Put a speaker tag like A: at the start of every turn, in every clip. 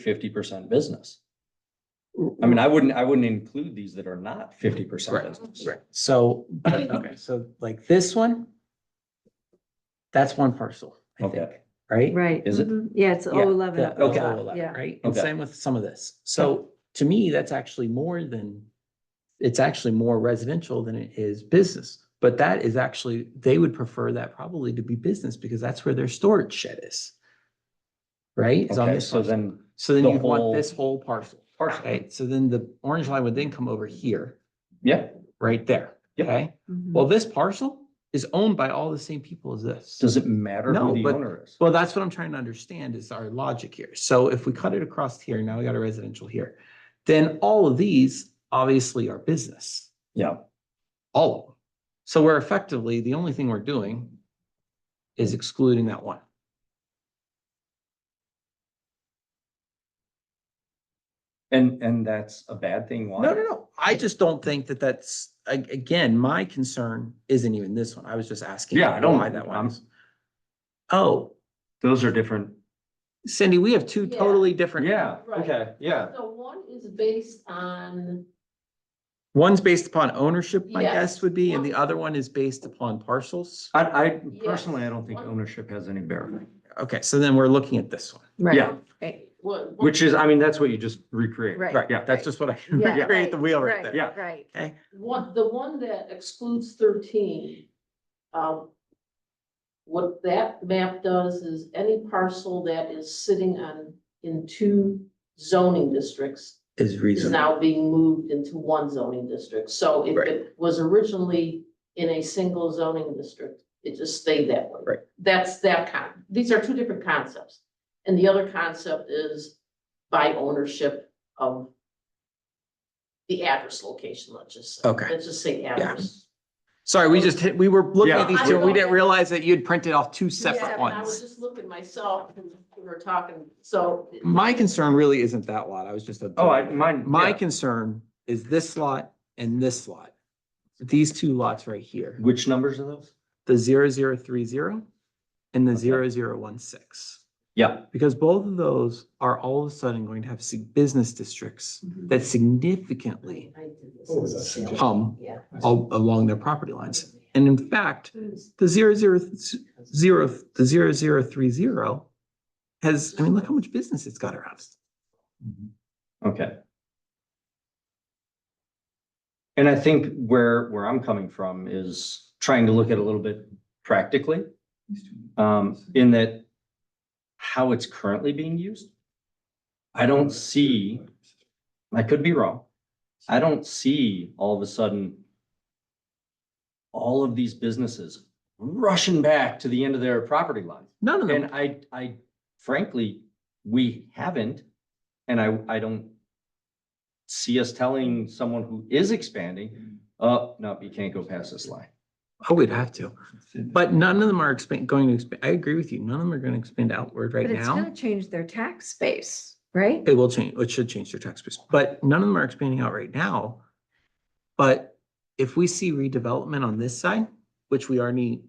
A: fifty percent business. I
B: Mm.
A: mean, I wouldn't, I wouldn't include these that are not fifty percent
C: Correct,
A: business.
C: correct.
D: So,
C: Okay.
D: so like this one, that's one parcel, I
A: Okay.
D: think, right?
E: Right.
A: Is it?
E: Mhm. Yeah, it's O
D: Yeah,
E: eleven.
D: The
A: Okay.
D: O eleven,
E: Yeah.
D: right? And
A: Okay.
D: same with some of this. So to me, that's actually more than, it's actually more residential than it is business. But that is actually, they would prefer that probably to be business because that's where their storage shed is. Right? It's on
A: Okay,
D: this
A: so
D: parcel.
A: then,
D: So then
A: the
D: you
A: whole-
D: want this whole parcel.
A: Parcel.
D: Right? So then the orange line would then come over here,
A: yeah,
D: right there.
A: Yep.
D: Okay?
E: Mhm.
D: Well, this parcel is owned by all the same people as this.
A: does it matter
D: No,
A: who the
D: but-
A: owner is?
D: Well, that's what I'm trying to understand is our logic here. So if we cut it across here, now we got a residential here, then all of these obviously are business,
A: Yeah,
D: all of them. So we're effectively, the only thing we're doing is excluding that one.
A: and, and that's a bad thing, why?
D: No, no, no. I just don't think that that's, a- again, my concern isn't even this one. I was just asking.
A: Yeah, I don't-
D: Why that one
A: I'm-
D: is. Oh,
A: Those are different.
D: Cindy, we have two
B: Yeah.
D: totally different.
A: Yeah,
B: Right.
A: okay, yeah.
B: So one is based on,
D: One's based upon ownership, my
B: Yes.
D: guess would be, and the
B: One-
D: other one is based upon parcels.
A: I, I personally, I
B: Yes.
A: don't think ownership has any bearing,
D: Okay, so then we're looking at this one.
E: Right.
A: yeah.
E: Right.
B: what? what-
A: which is, I mean, that's what you just recreate.
E: Right.
D: Right, yeah, that's just what I,
E: Yeah.
D: create the wheel right there.
A: Yeah.
E: Right.
D: Okay,
B: One, the one that excludes thirteen, um, what that map does is any parcel that is sitting on, in two zoning districts
D: is
B: is
D: reasonable.
B: now being moved into one zoning district. So if
D: Right.
B: it was originally in a single zoning district, it just stayed that way.
D: Right.
B: That's that con, these are two different concepts. And the other concept is by ownership of the address location, let's just say.
D: Okay.
B: Let's just say address.
D: Sorry, we just hit, we were looking at
A: Yeah.
D: these two, and we didn't realize that you'd printed off two separate
B: I was
D: ones.
B: just looking myself when we were talking, so.
D: My concern really isn't that lot, I was just.
A: Oh, I, mine.
D: My
A: yeah.
D: concern is this lot and this lot. These two lots right here,
A: Which numbers are those?
D: the zero zero three zero and the
A: Okay.
D: zero zero one six.
A: Yeah,
D: Because both of those are all of a sudden going to have sig- business districts that significantly
B: I did this.
F: What was that suggestion?
D: hum
B: Yeah.
D: al- along their property lines. And in fact, the zero zero zero, the zero zero three zero has, I mean, look how much business it's got around. it.
A: okay. And I think where, where I'm coming from is trying to look at a little bit practically. Um, in that how it's currently being used. I don't see, I could be wrong. I don't see all of a sudden all of these businesses rushing back to the end of their property line.
D: None of
A: And
D: them,
A: I, I frankly, we haven't, and I, I don't see us telling someone who is expanding, uh, no, you can't go past this line.
D: oh, we'd have to, but none of them are expand, going to expand. I agree with you. None of them are going to expand outward right
E: But it's
D: now.
E: gonna change their tax base, right?
D: It will change, it should change their tax base, but none of them are expanding out right now. But if we see redevelopment on this side, which we already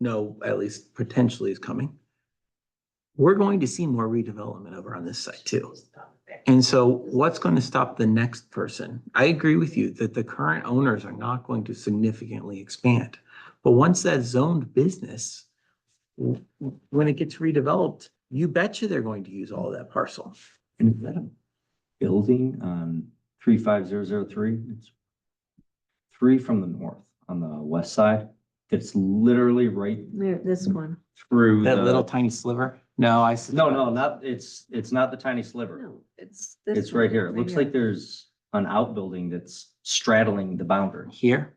D: know at least potentially is coming, we're going to see more redevelopment over on this side too. And so what's going to stop the next person? I agree with you that the current owners are not going to significantly expand. But once that's zoned business, w- w- when it gets redeveloped, you betcha they're going to use all of that parcel.
A: And is that a building on three five zero zero three? It's three from the north on the west side. It's literally right
E: Yeah, This one.
A: through
D: That little
A: the,
D: tiny sliver? No, I. s-
A: no, no, not, it's, it's not the tiny sliver.
E: No, it's. this
A: It's right
E: one,
A: here. It looks like there's an outbuilding that's straddling the boundary.
D: Here,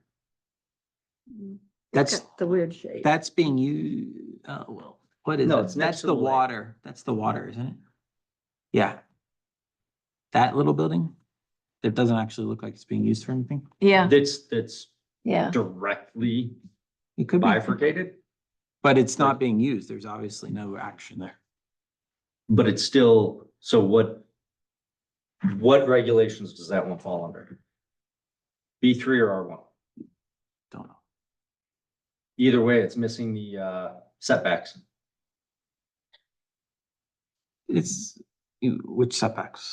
E: Mm.
D: that's,
E: Look at The weird shape.
D: that's being used, oh, well, what is
A: No,
D: that?
A: it's next
D: That's
A: to
D: the
A: the lake.
D: water, that's the water, isn't it? Yeah. That little building? It doesn't actually look like it's being used for anything.
E: Yeah,
A: That's, that's
E: yeah.
A: directly
D: It could be,
A: bifurcated,
D: but it's not being used. There's obviously no action there.
A: but it's still, so what? What regulations does that one fall under? B three or R one?
D: Don't know.
A: Either way, it's missing the uh setbacks.
D: It's, you- which setbacks?